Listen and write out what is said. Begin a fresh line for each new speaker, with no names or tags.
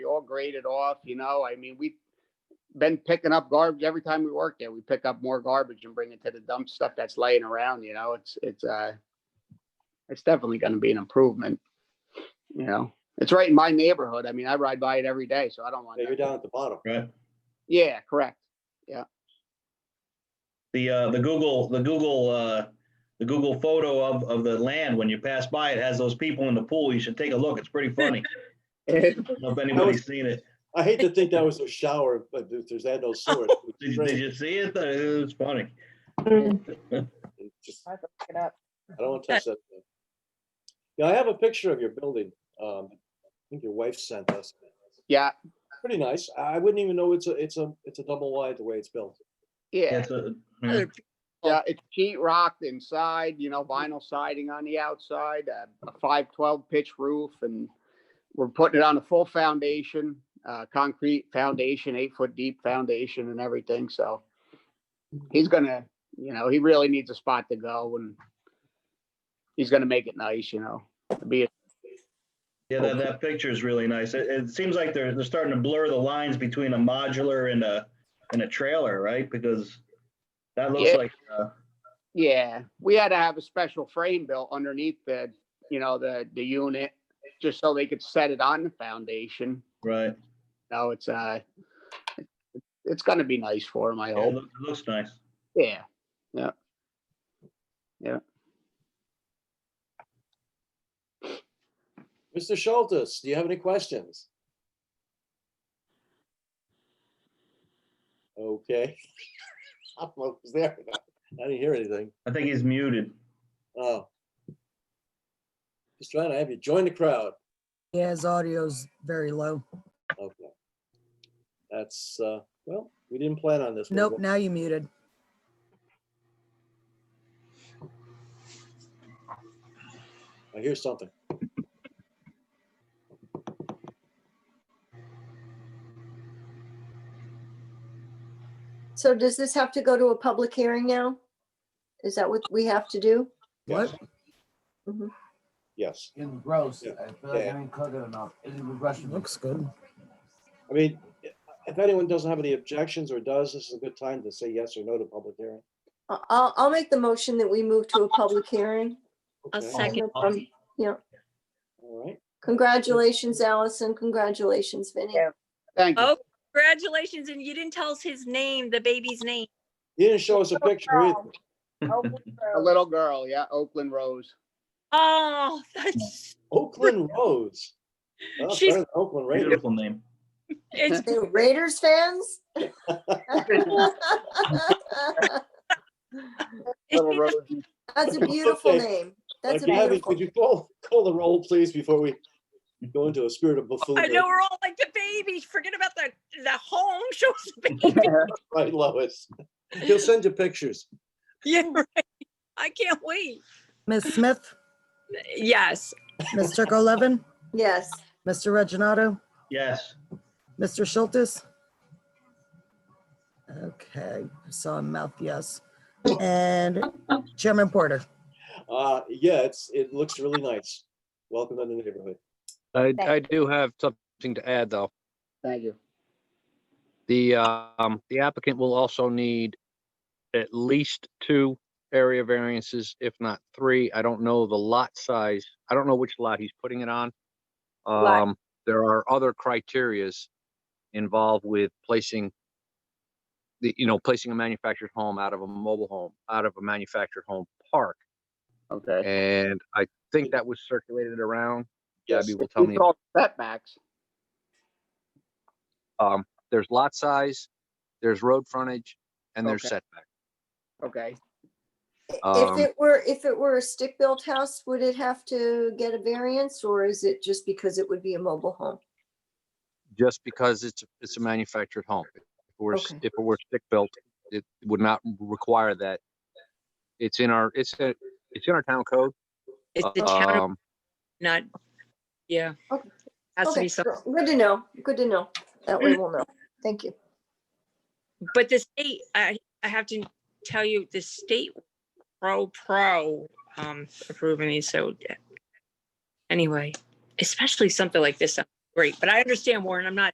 all graded off, you know, I mean, we've been picking up garbage every time we work there. We pick up more garbage and bring it to the dump stuff that's laying around, you know, it's, it's, uh, it's definitely gonna be an improvement, you know? It's right in my neighborhood. I mean, I ride by it every day, so I don't want
Yeah, You're
to,
down at the bottom.
Right.
yeah, correct.
The, uh, the Google, the Google, uh, the Google photo of, of the land, when you pass by, it has those people in the pool. You should take a look. It's pretty funny. I don't know if anybody's seen it.
I hate to think that was a shower, but if there's that no sewer.
Did, did you see it? It was funny.
It just-
I have to look it up.
I don't want to touch that. thing. Yeah, I have a picture of your building. Um, I think your wife sent us.
Yeah,
Pretty nice. I I wouldn't even know it's a, it's a, it's a double wide the way it's built.
yeah,
It's a- yeah.
yeah, it's sheet rocked inside, you know, vinyl siding on the outside, uh, a five twelve pitch roof, and we're putting it on a full foundation, uh, concrete foundation, eight foot deep foundation and everything, so he's gonna, you know, he really needs a spot to go and he's gonna make it nice, you know, to be,
Yeah, that, that picture is really nice. It, it seems like they're, they're starting to blur the lines between a modular and a, and a trailer, right? Because that looks
Yeah.
like, uh,
yeah, we had to have a special frame built underneath the, you know, the, the unit, just so they could set it on the foundation.
right.
No, it's uh, it's gonna be nice for him, I
Yeah, It
hope.
loo- it looks nice.
Yeah,
Mr. Schultz, do you have any questions? Okay. I don't know if it's there. I didn't hear anything.
I think he's muted.
Oh. Just trying to have you join the crowd.
Yeah, his audio's very low.
Okay. That's, uh, well, we didn't plan on this. one,
Nope,
but-
now you muted.
I hear something.
So does this have to go to a public hearing now? Is that what we have to do?
What?
Yes.
Mhm.
Yes.
It was gross.
Yeah.
I feel like
Yeah.
I didn't cook it enough. It was Russian.
Looks good.
I mean, if anyone doesn't have any objections or does, this is a good time to say yes or no to public hearing.
I- I'll, I'll make the motion that we move to a public hearing.
I'll
Okay.
second.
Um, Yeah,
All right.
congratulations, Allison. Congratulations, Vinny.
Yeah.
thank you.
Oh, congratulations. And you didn't tell us his name, the baby's name.
He didn't show us a picture either.
Oakland
A
Road.
little girl, yeah, Oakland Rose.
Oh, that's,
Oakland Roads. Well,
She's-
better than Oakland Raiders.
Beautiful name.
it's,
They were Raiders fans?
Little
it's-
Rose,
That's a beautiful
Okay.
name. That's
Uh,
a
Gabby,
beautiful.
could you call, call the roll, please, before we go into a spirit of
I
buffoonery?
know we're all like the baby. Forget about the, the home shows the baby.
Right, Lois. He'll send you pictures.
Yeah, right. I can't wait.
Ms. Smith,
Yes.
Ms. Turco Levin,
Yes,
Mr. Reggino,
Yes.
Mr. Schultz. Okay, I saw a mouth, yes. And Chairman Porter.
Uh, yeah, it's, it looks really nice. Welcome to the neighborhood.
I,
Thank
I do have something to add, though.
Thank you.
The, um, the applicant will also need at least two area variances, if not three. I don't know the lot size. I don't know which lot he's putting it on.
Lot.
Um, there are other criterias involved with placing the, you know, placing a manufactured home out of a mobile home, out of a manufactured home park.
Okay.
And I think that was circulated around.
Yes.
Gabby will tell me.
It's all setbacks.
Um, there's lot size, there's road frontage, and there's
Okay.
setback.
Okay.
Um,
if it were, if it were a stick-built house, would it have to get a variance or is it just because it would be a mobile home?
just because it's, it's a manufactured home. If it were, s-
Okay.
if it were stick-built, it would not require that. It's in our, it's, a- it's in our town code.
It's the town of
Um,
not, yeah.
Okay.
Has to
Okay,
be some,
good- good to know, good to know. That way we'll know. Thank you.
but the state, I, I have to tell you, the state pro, pro, um, approving these. So yeah. anyway, especially something like this, sounds great, but I understand Warren, I'm not